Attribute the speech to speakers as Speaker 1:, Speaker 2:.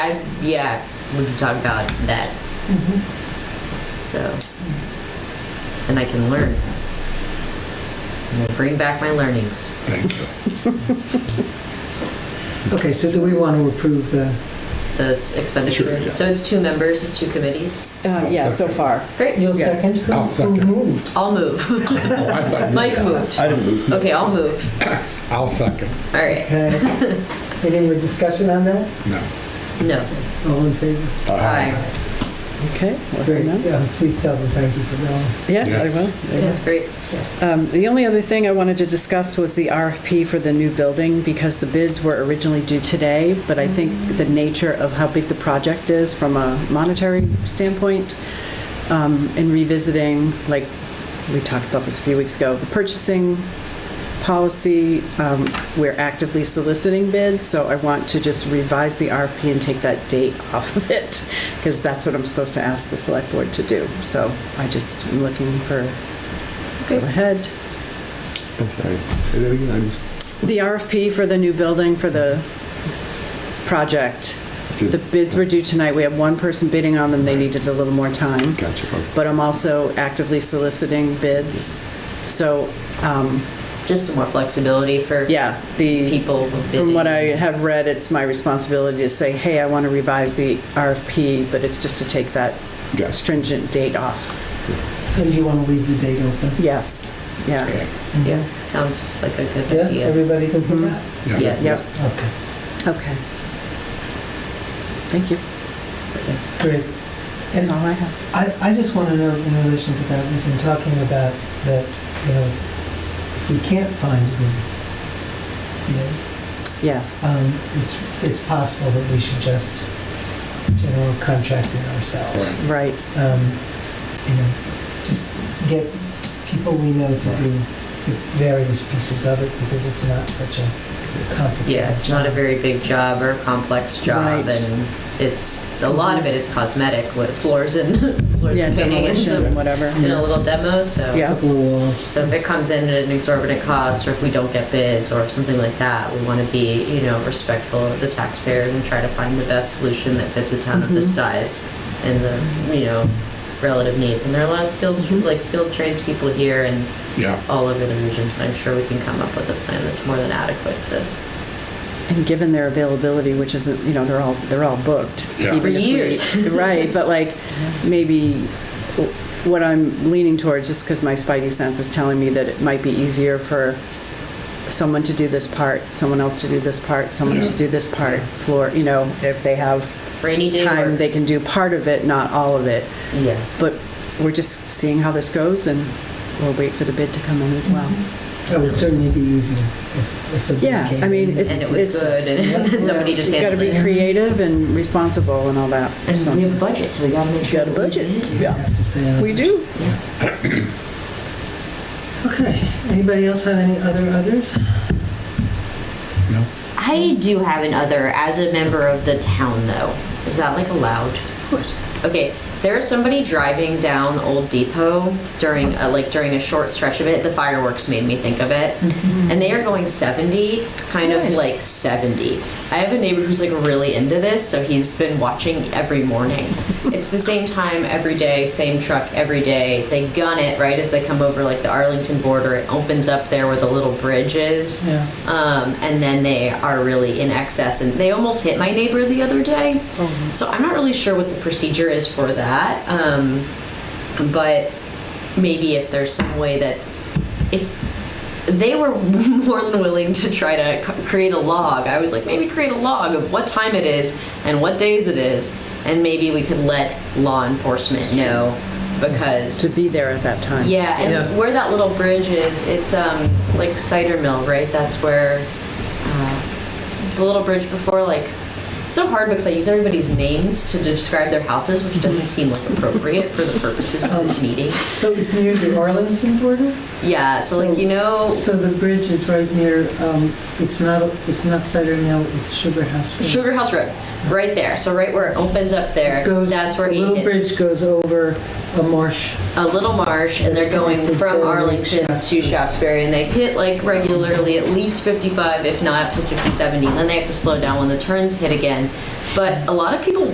Speaker 1: I, yeah, we can talk about that.
Speaker 2: Mm-hmm.
Speaker 1: So, and I can learn. I'm gonna bring back my learnings.
Speaker 3: Thank you.
Speaker 2: Okay, so do we want to approve the,
Speaker 1: Those
Speaker 3: Sure,
Speaker 1: expenditure.
Speaker 3: yeah.
Speaker 1: So it's two members of two committees.
Speaker 4: Uh, yeah, so far.
Speaker 1: Great.
Speaker 5: You'll second? Who-
Speaker 3: I'll second.
Speaker 5: Who moved?
Speaker 1: I'll move.
Speaker 3: Oh, I thought you-
Speaker 1: Mike moved.
Speaker 6: I didn't move.
Speaker 1: Okay, I'll move.
Speaker 3: I'll second.
Speaker 1: All right.
Speaker 2: okay, Uh,
Speaker 5: Any more discussion on that?
Speaker 3: No.
Speaker 1: No.
Speaker 2: all in favor?
Speaker 1: Aye.
Speaker 4: Okay. well,
Speaker 2: Great,
Speaker 4: no.
Speaker 2: yeah, please tell them thank you for going.
Speaker 4: Yeah, I
Speaker 3: Yes.
Speaker 4: will. I will.
Speaker 1: That's great.
Speaker 4: Um, The only other thing I wanted to discuss was the RFP for the new building, because the bids were originally due today, but I think the nature of how big the project is from a monetary standpoint, um, in revisiting, like, we talked about this a few weeks ago, the purchasing policy, um, we're actively soliciting bids, so I want to just revise the RFP and take that date off of it, because that's what I'm supposed to ask the select board to do. So I just am looking for go
Speaker 1: Okay.
Speaker 4: ahead.
Speaker 6: I'm sorry. Say that again. I'm just-
Speaker 4: The RFP for the new building for the project, the bids were due tonight. We have one person bidding on them. They needed a little more time.
Speaker 6: Gotcha.
Speaker 3: Oh,
Speaker 6: okay.
Speaker 4: But I'm also actively soliciting bids. So, um,
Speaker 1: Just some more flexibility for
Speaker 4: yeah, the,
Speaker 1: people bidding.
Speaker 4: from what I have read, it's my responsibility to say, hey, I want to revise the RFP, but it's just to take that
Speaker 6: Gotcha.
Speaker 4: stringent date off.
Speaker 2: And you want to leave the date open?
Speaker 4: Yes, yeah. Mm-hmm.
Speaker 3: Okay.
Speaker 1: Yeah, sounds like a
Speaker 2: Yeah,
Speaker 1: good idea.
Speaker 2: everybody can put that?
Speaker 3: Yeah.
Speaker 1: Yes.
Speaker 4: Yep,
Speaker 2: Okay,
Speaker 4: okay. Thank you.
Speaker 2: great.
Speaker 4: That's
Speaker 2: And
Speaker 4: all I have.
Speaker 2: I, I just want to know in relation to that, we've been talking about that, you know, if we can't find them, you know,
Speaker 4: Yes.
Speaker 2: um, it's, it's possible that we should just general contract it ourselves.
Speaker 4: Right,
Speaker 2: um, you know, just get people we know to do the various pieces of it because it's not such a complicated.
Speaker 1: Yeah, it's not a
Speaker 2: job.
Speaker 1: very big job or a complex job,
Speaker 4: Right.
Speaker 1: and it's, a lot of it is cosmetic, with floors and, floors
Speaker 4: yeah,
Speaker 1: and painting and
Speaker 4: demolition,
Speaker 1: some,
Speaker 4: and whatever.
Speaker 1: and a little demo, so.
Speaker 4: Yeah.
Speaker 2: Couple of walls.
Speaker 1: So if it comes in at an exorbitant cost, or if we don't get bids, or something like that, we want to be, you know, respectful of the taxpayers and try to find the best solution that fits a town of
Speaker 4: Mm-hmm.
Speaker 1: this size and the, you know, relative needs. And there are a lot of skills,
Speaker 4: Mm-hmm.
Speaker 1: like skilled tradespeople here and
Speaker 3: Yeah.
Speaker 1: all over the region, so I'm sure we can come up with a plan that's more than adequate to
Speaker 4: And given their availability, which isn't, you know, they're all, they're all booked.
Speaker 3: Yeah.
Speaker 4: even
Speaker 3: For
Speaker 4: if we-
Speaker 1: years.
Speaker 4: Right, but like, maybe w- what I'm leaning towards, just because my spidey sense is telling me that it might be easier for someone to do this part, someone else to do this part, someone to
Speaker 3: Yeah.
Speaker 4: do this part, floor, you know, if they have
Speaker 1: rainy day
Speaker 4: time,
Speaker 1: work.
Speaker 4: they can do part of it, not all of it.
Speaker 1: Yeah.
Speaker 4: But we're just seeing how this goes, and we'll wait for the bid to come in as well.
Speaker 2: That would Oh, certainly be easier if, if the bid
Speaker 4: Yeah,
Speaker 2: came
Speaker 4: I mean,
Speaker 2: in.
Speaker 1: And
Speaker 4: it's-
Speaker 1: it was good, and and somebody just
Speaker 4: You've got to
Speaker 1: handled
Speaker 4: be
Speaker 1: it.
Speaker 4: creative and responsible and all that. so.
Speaker 1: And we have a budget, so we gotta make
Speaker 4: You
Speaker 1: sure.
Speaker 4: got a
Speaker 1: that we
Speaker 4: budget.
Speaker 1: can-
Speaker 2: You have to stay on it.
Speaker 4: We do.
Speaker 1: Yeah.
Speaker 2: Okay, anybody else have any other others?
Speaker 3: No.
Speaker 1: I do have another as a member of the town, though. Is that like allowed? Of course. Okay, there was somebody driving down Old Depot during a, like during a short stretch of it. The fireworks made me think of it, and they are going seventy, kind of like seventy. I have a neighbor who's like really into this, so he's been watching every morning. it's the same time every day, same truck every day. They gun it right as they come over like the Arlington border. It opens up there where the little bridge is
Speaker 4: Yeah.
Speaker 1: um, and then they are really in excess. And they almost hit my neighbor the other day. So I'm not really sure what the procedure is for that. Um, but maybe if there's some way that if they were more than willing to try to c- create a log, I was like, maybe create a log of what time it is and what days it is, and maybe we could let law enforcement know because
Speaker 4: To be there at that time.
Speaker 1: yeah, and
Speaker 2: Yeah.
Speaker 1: where that little bridge is, it's um like cider mill, right? That's where uh, the little bridge before like it's so hard because I use everybody's names to describe their houses,
Speaker 2: Mm-hmm.
Speaker 1: which doesn't seem like appropriate for the purposes of
Speaker 2: Oh.
Speaker 1: this meeting.
Speaker 2: So it's near the Arlington border?
Speaker 1: Yeah, so like you know,
Speaker 2: So the bridge is right near, um, it's not, it's not Cider Mill, it's Sugar House. Road.
Speaker 1: Sugar House Road. right there. So right where it opens up there,
Speaker 2: Goes,
Speaker 1: that's where
Speaker 2: the
Speaker 1: he
Speaker 2: little
Speaker 1: hits
Speaker 2: bridge goes over a marsh.
Speaker 1: a little marsh, and they're
Speaker 2: It's
Speaker 1: going
Speaker 2: connected
Speaker 1: from
Speaker 2: to
Speaker 1: Arlington to Shaftesbury, and they hit like regularly at least 55, if not up to 60, 70. Then they have to slow down when the turns hit again. But a lot of people